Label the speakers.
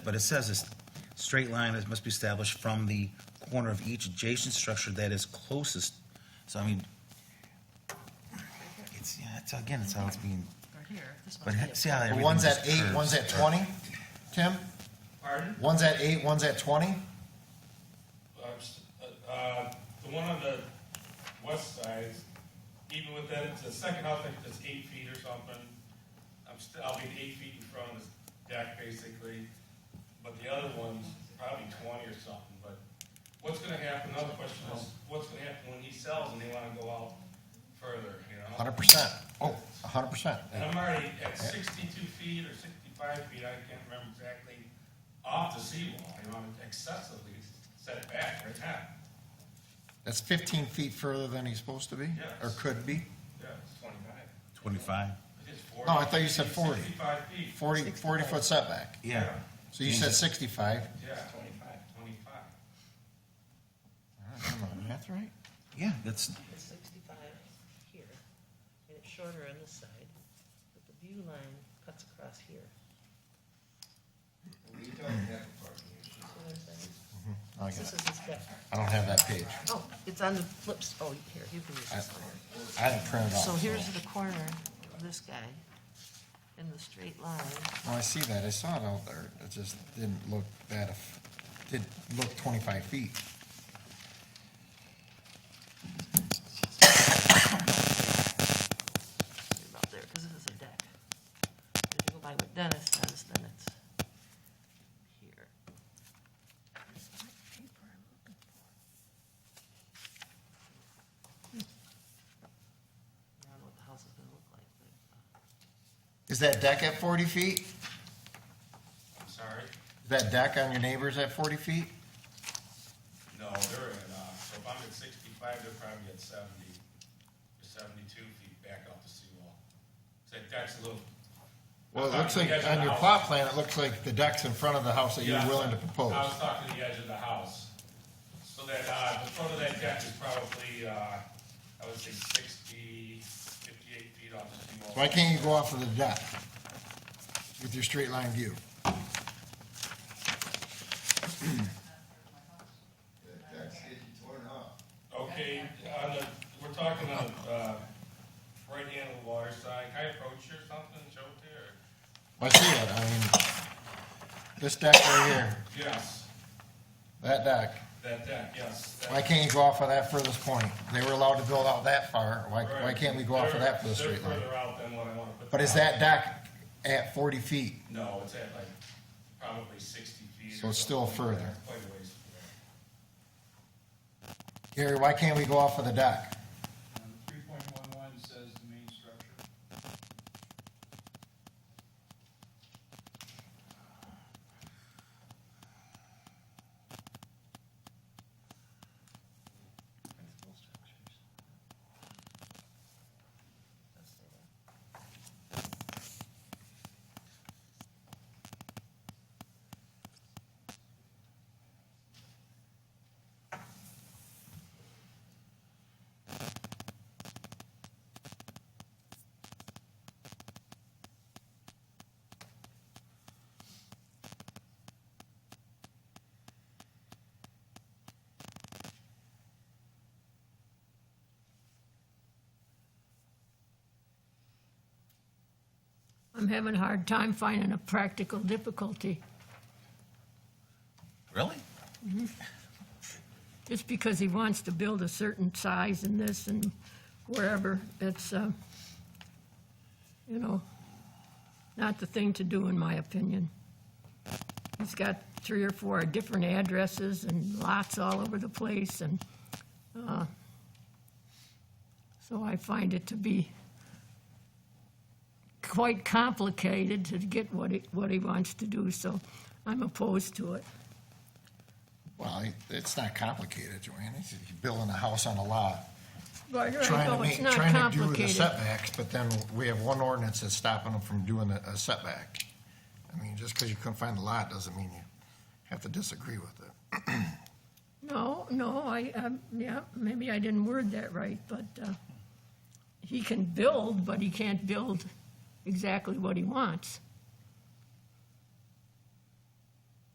Speaker 1: But it says this, straight line is- must be established from the corner of each adjacent structure that is closest, so I mean, it's, yeah, it's, again, it's how it's being,
Speaker 2: Right here, this
Speaker 1: but
Speaker 2: must be a-
Speaker 1: see how
Speaker 3: But
Speaker 1: everything
Speaker 3: One's
Speaker 1: just
Speaker 3: at eight,
Speaker 1: curves.
Speaker 3: one's at twenty, Tim?
Speaker 4: Pardon?
Speaker 3: One's at eight, one's at twenty?
Speaker 4: I'm s- uh, uh, The one on the west side, even with that, it's the second house, I think it's eight feet or something. I'm still, I'll be eight feet in front of this deck basically, but the other one's probably twenty or something, but what's gonna happen, another question is, what's gonna happen when he sells and they wanna go out further, you know?
Speaker 3: Hundred percent. Oh, a hundred percent.
Speaker 4: And I'm already at sixty-two feet or sixty-five feet, I can't remember exactly, off the seawall, you know, I'm excessively set back right now.
Speaker 3: That's fifteen feet further than he's supposed to be, or
Speaker 4: Yes.
Speaker 3: could be.
Speaker 4: Yeah, it's twenty-five.
Speaker 1: Twenty-five,
Speaker 4: I think it's 40.
Speaker 3: No, I thought you said 40.
Speaker 4: Sixty-five feet.
Speaker 3: 40 40 foot setback.
Speaker 1: yeah.
Speaker 3: So you said sixty-five.
Speaker 4: Yeah, twenty-five. Twenty-five.
Speaker 3: That's right.
Speaker 1: Yeah, that's,
Speaker 2: It's sixty-five here, and it's shorter on this side, but the view line cuts across here. See what I'm saying?
Speaker 3: I got
Speaker 2: This
Speaker 3: it.
Speaker 2: is his back.
Speaker 3: I don't have that page.
Speaker 2: Oh, it's on the flips, oh, here, you can use this one.
Speaker 3: I didn't print it off.
Speaker 2: So here's the corner of this guy, in the straight line,
Speaker 3: Oh, I see that. I saw it out there. It just didn't look that, eff- didn't look twenty-five feet.
Speaker 2: about there, because this is a deck. If you go by what Dennis says, then it's here. I don't know what the house is gonna look like, but.
Speaker 3: Is that deck at forty feet?
Speaker 4: I'm sorry.
Speaker 3: Is that deck on your neighbor's at forty feet?
Speaker 4: No, they're at, uh, so if I'm at sixty-five, they're probably at seventy, or seventy-two feet back off the seawall. So that's a little.
Speaker 3: Well, it
Speaker 4: I'm
Speaker 3: looks
Speaker 4: talking
Speaker 3: like,
Speaker 4: to the edge
Speaker 3: on
Speaker 4: of the
Speaker 3: your
Speaker 4: house.
Speaker 3: plot plan, it looks like the deck's in front of the house that you're
Speaker 4: Yeah,
Speaker 3: willing to propose.
Speaker 4: I was talking to the edge of the house. So that, uh, the front of that deck is probably, uh, I would say 60, 58 feet off the seawall.
Speaker 3: Why can't you go off of the deck with your straight line view?
Speaker 4: Okay, on the, we're talking on, uh, right hand of the water side, can I approach you or something, show it to you, or?
Speaker 3: I see it, I mean, this deck right here,
Speaker 4: Yes,
Speaker 3: that deck,
Speaker 4: that deck, yes. that-
Speaker 3: why can't you go off of that furthest point? They were allowed to build out that far, why,
Speaker 4: right.
Speaker 3: why can't we go off of that for the
Speaker 4: They're-
Speaker 3: straight line?
Speaker 4: They're further out than what I wanna put.
Speaker 3: But is that
Speaker 4: down.
Speaker 3: deck at forty feet?
Speaker 4: No, it's at like, probably sixty feet.
Speaker 3: So
Speaker 4: or
Speaker 3: it's still
Speaker 4: something.
Speaker 3: further.
Speaker 4: Quite a ways from there.
Speaker 3: Gary, why can't we go off of the deck?
Speaker 5: Three point one one says the main structure.
Speaker 2: Principal structures. Does say that.
Speaker 6: I'm having a hard time finding a practical difficulty,
Speaker 1: really?
Speaker 6: just because he wants to build a certain size in this and wherever, it's, uh, you know, not the thing to do, in my opinion. He's got three or four different addresses and lots all over the place, and, uh, so I find it to be quite complicated to get what he, what he wants to do, so I'm opposed to it.
Speaker 3: Well, it's not complicated, Joanne, It's- you're building a house on a lot.
Speaker 6: Right, right,
Speaker 3: trying to
Speaker 6: no, it's
Speaker 3: make,
Speaker 6: not
Speaker 3: trying to do the
Speaker 6: complicated.
Speaker 3: setbacks, but then we have one ordinance that's stopping them from doing a a setback. I mean, just because you couldn't find a lot doesn't mean you have to disagree with it.
Speaker 6: No, no, I, um, yeah, maybe I didn't word that right, but, uh, he can build, but he can't build exactly what he wants.